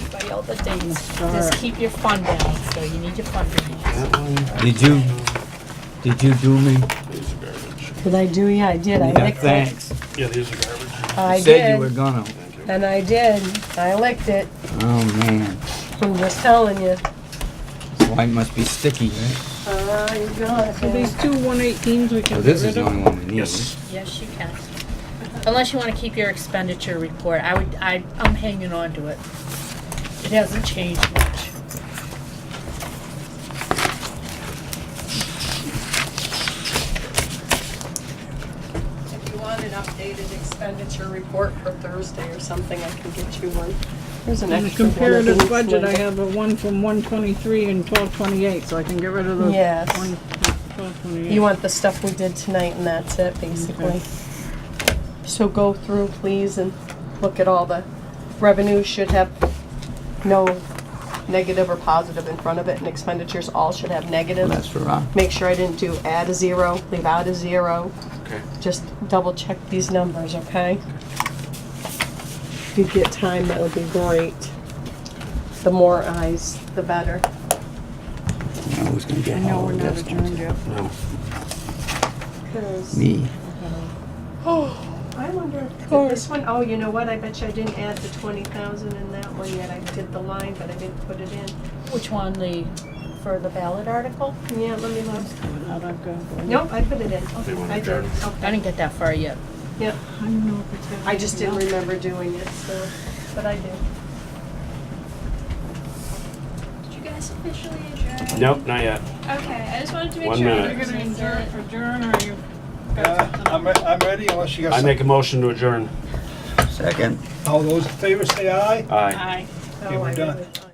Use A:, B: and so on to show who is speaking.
A: all the dates. Just keep your fund balance, so you need your fund balance.
B: Did you, did you do me?
C: These are garbage.
D: Did I do, yeah, I did, I
B: Yeah,
D: licked it.
B: Thanks.
C: Yeah, these are garbage.
D: I
B: You Said you were
D: did,
B: gonna.
C: Thank you.
D: and I did, I licked it,
B: Oh, man.
D: I'm just telling you.
B: This white must be sticky, right?
D: Oh, you got
E: So these two one eighteens we
B: So
E: can get
B: this is
E: rid
B: the
E: of?
B: only one we need.
C: Yes.
A: Yes, you can. Unless you wanna keep your expenditure report, I would, I, I'm hanging on to it. It hasn't changed much.
D: If you want an updated expenditure report for Thursday or something, I can get you one. There's an
E: In the
D: extra one.
E: comparative
D: of each
E: budget, I
D: one.
E: have a one from one twenty-three and twelve twenty-eight, so I can get rid of those.
D: Yes.
E: one- Twelve twenty-eight.
D: You want the stuff we did tonight and that's it, basically. So go through, please, and look at all the revenues should have no negative or positive in front of it, and expenditures all should have
B: Well,
D: negatives.
B: that's for rock.
D: Make sure I didn't do add a zero, leave out a zero.
C: Okay.
D: Just double check these numbers, okay? If you get time, that would be great. The more eyes, the better.
B: I was gonna
E: I
B: get
E: know
B: all
E: we're
B: of
E: not
B: this.
E: adjourned yet.
B: Me.
D: I wonder if this one, oh, you know what, I bet you I didn't add the twenty thousand in that one yet, I did the line, but I didn't put it in.
A: Which one, the, for the ballot article?
D: Yeah, let me look.
E: Out I've got-
D: Nope, I put it in,
C: They want
D: I
C: to
D: did,
C: adjourn.
A: I
D: okay.
A: didn't get that far yet.
D: Yep,
E: I don't know if it's got
D: I just didn't
E: anything
D: remember doing it, so, but I did.
F: Did you guys officially adjourn?
C: Nope, not yet.
F: Okay, I just wanted to make
C: One
F: sure.
C: minute.
E: else. You're gonna adjourn, adjourn or you?
G: Uh, I'm, re- I'm ready unless you got
C: I
G: something.
C: make a motion to adjourn.
B: Second.
G: All those in favor say aye.
C: Aye.
E: Aye.
D: Oh,
G: we're
D: I
G: done.
D: did it.